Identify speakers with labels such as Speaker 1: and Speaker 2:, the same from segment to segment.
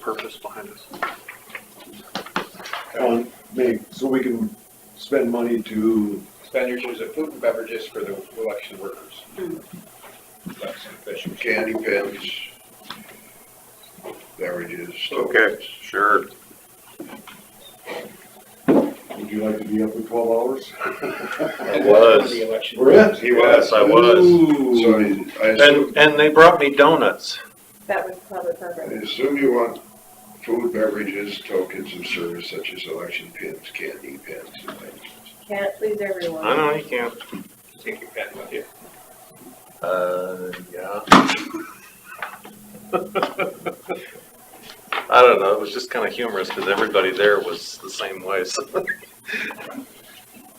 Speaker 1: purpose behind this.
Speaker 2: on, make, Um, so we can spend money to,
Speaker 3: Expenditures of food and beverages for the election workers. Election officials.
Speaker 4: candy pins, beverages.
Speaker 5: Okay, sure.
Speaker 2: would you like to be up for twelve hours?
Speaker 5: I was.
Speaker 3: The election.
Speaker 2: We're in.
Speaker 4: He was.
Speaker 5: Yes, I was.
Speaker 4: So
Speaker 2: Ooh.
Speaker 4: I- I assume,
Speaker 5: And, and they brought me donuts.
Speaker 6: That was public
Speaker 4: I
Speaker 6: program.
Speaker 4: assume you want food, beverages, tokens of service such as election pins, candy pins, and things.
Speaker 6: Can't please everyone.
Speaker 5: I know you can't.
Speaker 3: Take your pen with you.
Speaker 5: Uh, yeah. I don't know, it was just kind of humorous because everybody there was the same way, so.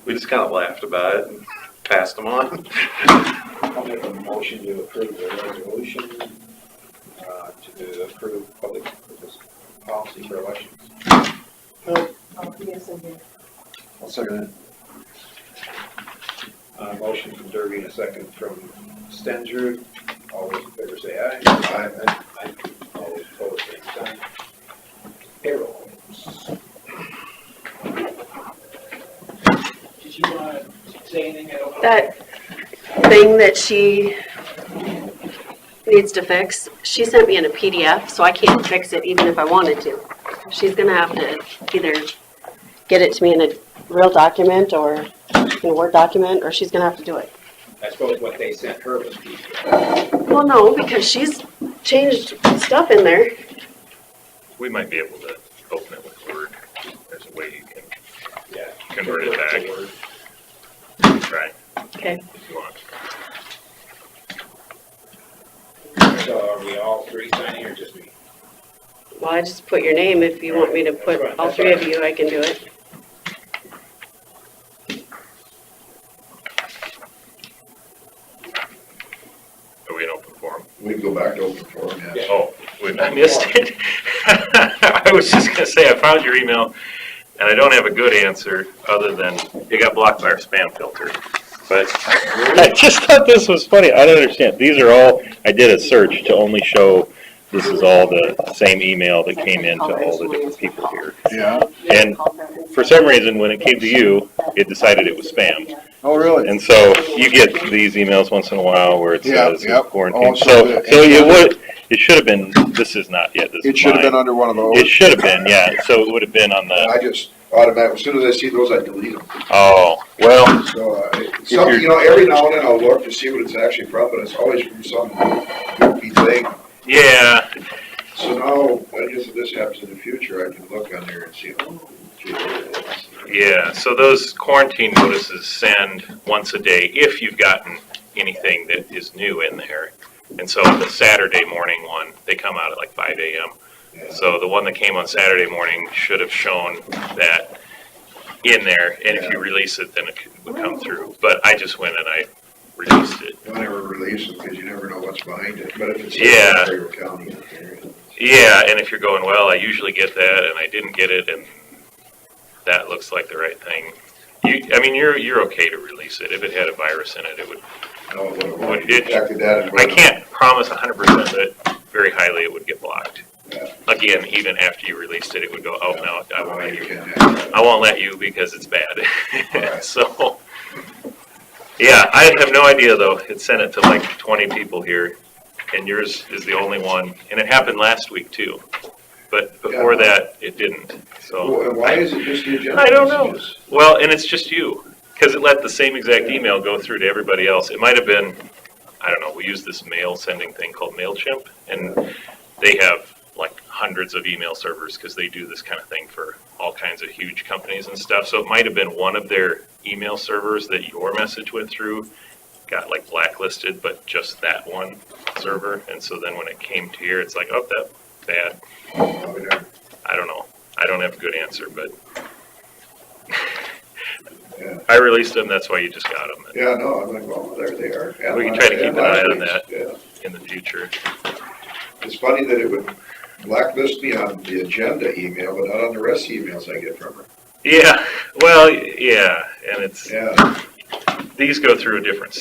Speaker 5: We just kind of laughed about it and passed them on.
Speaker 3: I'll make a motion to approve the resolution, uh, to approve public purpose policy for elections.
Speaker 6: Oh, yes, I did.
Speaker 2: I'll second that.
Speaker 3: Uh, motion from Derby and a second from Stenger. All those in favor say aye. Aye. Aye. All those opposed, same sign. Payroll.
Speaker 7: Did you want to say anything? I don't know.
Speaker 8: that thing that she needs to fix, she sent me in a PDF, so I can't fix it even if I wanted to. She's gonna have to either get it to me in a real document or in a Word document, or she's gonna have to do it.
Speaker 3: I suppose what they sent her was people.
Speaker 8: Well, no, because she's changed stuff in there.
Speaker 9: We might be able to open it with Word. There's a way you can
Speaker 3: Yeah.
Speaker 9: convert it back, right,
Speaker 8: Okay.
Speaker 9: if you want.
Speaker 3: So are we all three signing or just me?
Speaker 8: Well, I just put your name. If you want me to put all three of you, I can do it.
Speaker 9: Are we in open forum?
Speaker 4: We can go back to open forum, yeah.
Speaker 9: Oh, we- I missed it. I was just gonna say, I found your email, and I don't have a good answer, other than it got blocked by our spam filter. But I just thought this was funny, I don't understand, these are all, I did a search to only show, this is all the same email that came in to all the different people here.
Speaker 2: Yeah.
Speaker 9: And For some reason, when it came to you, it decided it was spam.
Speaker 2: Oh, really?
Speaker 9: And so you get these emails once in a while where it
Speaker 2: Yeah,
Speaker 9: says
Speaker 2: yep. Oh,
Speaker 9: quarantine.
Speaker 2: Also,
Speaker 9: So,
Speaker 2: the-
Speaker 9: so it would, it should have been, this is not yet, this
Speaker 2: It
Speaker 9: is
Speaker 2: should have been
Speaker 9: mine.
Speaker 2: under one of
Speaker 9: It
Speaker 2: those.
Speaker 9: should have been, yeah, so it would have been on the,
Speaker 4: I just automatically, as soon as I see those, I delete them.
Speaker 9: oh, well,
Speaker 4: So, uh, some, you know, every now and then I'll look to see what it's actually from, but it's always from some goofy thing.
Speaker 9: yeah,
Speaker 4: So now, I guess if this happens in the future, I can look on there and see, oh, gee, that's-
Speaker 9: yeah. So those quarantine notices send once a day if you've gotten anything that is new in there. And so the Saturday morning one, they come out at like five AM.
Speaker 4: yeah.
Speaker 9: So the one that came on Saturday morning should have shown that in there, and if you release it, then it could- would come through. But I just went and I released it.
Speaker 4: Don't ever release them, because you never know what's behind it, but if it's.
Speaker 9: Yeah.
Speaker 4: Fayette County in there,
Speaker 9: Yeah, and if you're going, well, I usually get that, and I didn't get it, and that looks like the right thing. You, I mean, you're, you're okay to release it. If it had a virus in it, it would,
Speaker 4: I don't know what
Speaker 9: Well,
Speaker 4: it was.
Speaker 9: it-
Speaker 4: Detected that and
Speaker 9: I can't promise hundred percent that very highly it would get blocked.
Speaker 4: Yeah.
Speaker 9: Again, even after you released it, it would go, oh, no, I
Speaker 4: Oh,
Speaker 9: won't let
Speaker 4: you
Speaker 9: you
Speaker 4: can't have that.
Speaker 9: I won't let you because it's
Speaker 4: Right.
Speaker 9: bad. So, yeah, I have no idea though. It sent it to like twenty people here and yours is the only one. And it happened last week too. But before
Speaker 4: Yeah.
Speaker 9: that, it didn't. So,
Speaker 4: Well, and Why is it just the agenda?
Speaker 9: I don't know.
Speaker 4: messages?
Speaker 9: well, and it's just you. Cause it let the same exact email go through to everybody else. It might have been, I don't know, we use this mail sending thing called MailChimp and they have like hundreds of email servers because they do this kind of thing for all kinds of huge companies and stuff. So it might have been one of their email servers that your message went through got like blacklisted, but just that one server. And so then when it came to here, it's like, oh, that bad.
Speaker 4: Oh, yeah.
Speaker 9: I don't know. I don't have a good answer, but
Speaker 4: Yeah.
Speaker 9: I released them. That's why you just got them
Speaker 4: Yeah, no, I'm like, well, there they are. And
Speaker 9: We can
Speaker 4: last-
Speaker 9: try to keep
Speaker 4: and
Speaker 9: an eye
Speaker 4: last
Speaker 9: on
Speaker 4: week's,
Speaker 9: that.
Speaker 4: Yeah.
Speaker 9: in the future.
Speaker 4: It's funny that it would blacklist me on the agenda email, but not on the rest of the emails I get from her.
Speaker 9: Yeah. Well, yeah. And it's,
Speaker 4: Yeah.
Speaker 9: these go through a different